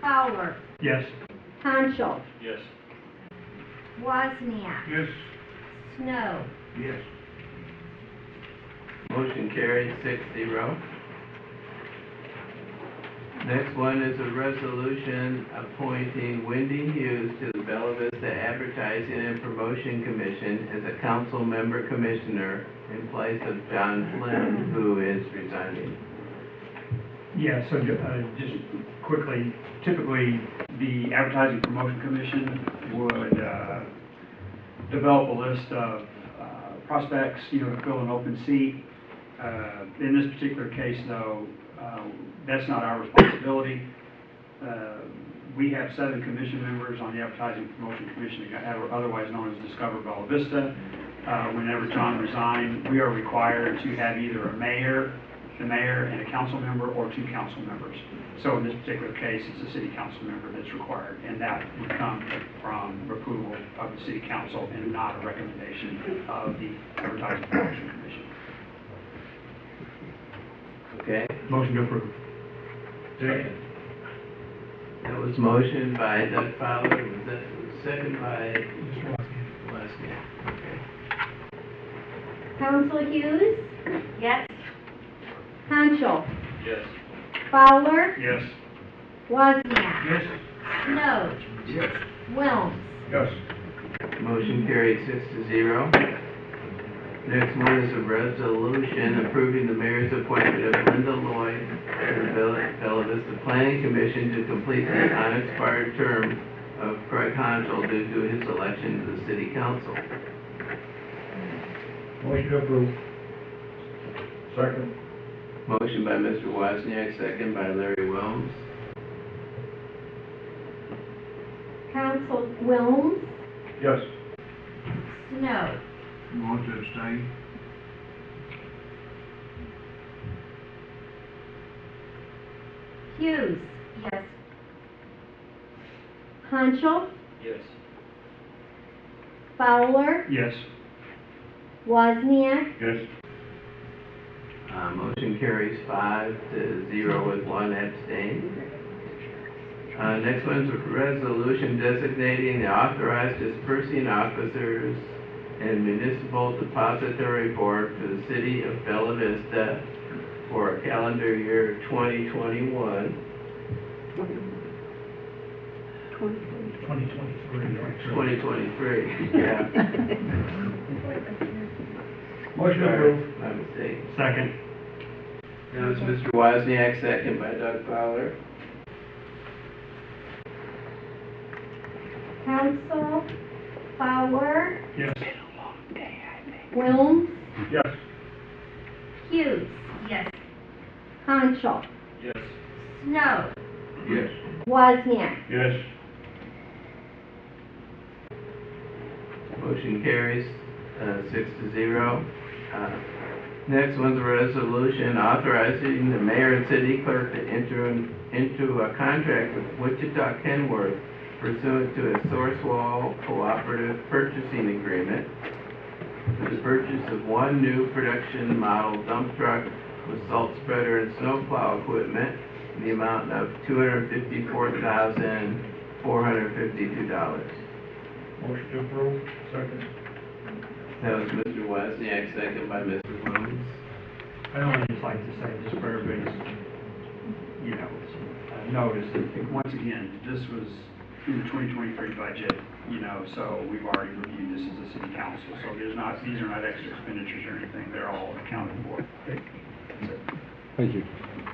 Fowler, Yes. Hanschel, Yes. Wozniak, Yes. Snow. Yes. Motion carries six zero. Next one is a resolution appointing Wendy Hughes to the Bella Vista Advertising and Promotion Commission as a council member commissioner in place of John Flynn, who is resigning. Yeah, so, uh, just quickly, typically, the Advertising Promotion Commission would, uh, develop a list of, uh, prospects, you know, to fill an open seat. Uh, in this particular case, though, uh, that's not our responsibility. Uh, we have seven commission members on the Advertising Promotion Commission, otherwise known as Discover Bella Vista. Uh, whenever John resigned, we are required to have either a mayor the mayor and a council member or two council members. So in this particular case, it's a city council member that's required, and that would come from approval of the city council and not a recommendation of the advertising promotion commission. Okay? Motion to approve. That was motion by Doug Fowler, was that second by? Wozniak. Okay. Council Hughes, Yes. Hanschel, Yes. Fowler, Yes. Wozniak, Yes. Snow, Yes. Wilms. Yes. Motion carried six to zero. Next one is a resolution approving the mayor's appointment of Linda Lloyd to the Bella- Bella Vista Planning Commission to complete the unexpired term of Craig Honchel due to his election to the city council. Motion to approve. Second. Motion by Mr. Wozniak, second by Larry Wilms. Council Wilms, Yes. Snow. You want to abstain? Hughes, Yes. Hanschel, Yes. Fowler, Yes. Wozniak, Yes. Uh, motion carries five to zero with one abstain. Uh, next one's a resolution designating the authorized dispersing officers and municipal depository board for the city of Bella Vista for calendar year twenty twenty-one, Twenty twenty-three. twenty twenty-three, yeah. Motion to Sorry, approve. My mistake. Second. That was Mr. Wozniak, second by Doug Fowler. Council Fowler, Yes. Wilms, Yes. Hughes, Yes. Hanschel, Yes. Snow, Yes. Wozniak, Yes. Motion carries, uh, six to zero. Uh, Next one's a resolution authorizing the mayor and city clerk to enter in- into a contract with Wichita Kenworth pursuant to a Sourcewell Cooperative Purchasing Agreement for the purchase of one new production model dump truck with salt spreader and snowplow equipment in the amount of two hundred fifty-four thousand, four hundred fifty-two dollars. Motion to approve. Second. That was Mr. Wozniak, second by Mr. Williams. I only just like to say, just for everybody's, you know, uh, notice, that, once again, this was in the twenty twenty-three budget, you know, so we've already reviewed this as a city council, so there's not, these are not extra expenditures or anything, they're all accounted for. Thank you.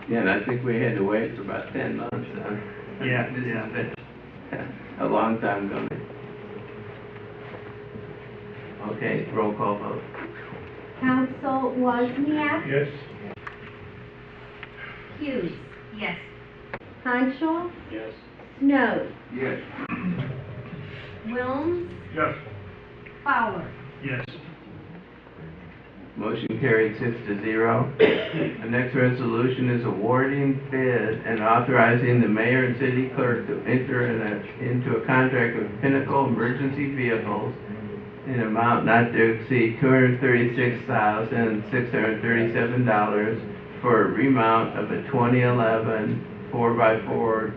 Yeah, and I think we had to wait for about ten months, huh? Yeah, This yeah. has been A long time coming. Okay, roll call vote. Council Wozniak, Yes. Hughes, Yes. Hanschel, Yes. Snow, Yes. Wilms, Yes. Fowler. Yes. Motion carried six to zero. The next resolution is awarding bid and authorizing the mayor and city clerk to enter in a, into a contract with Pinnacle Emergency Vehicles in amount not to exceed two hundred thirty-six thousand, six hundred thirty-seven dollars for a remount of a 2011 4 by 4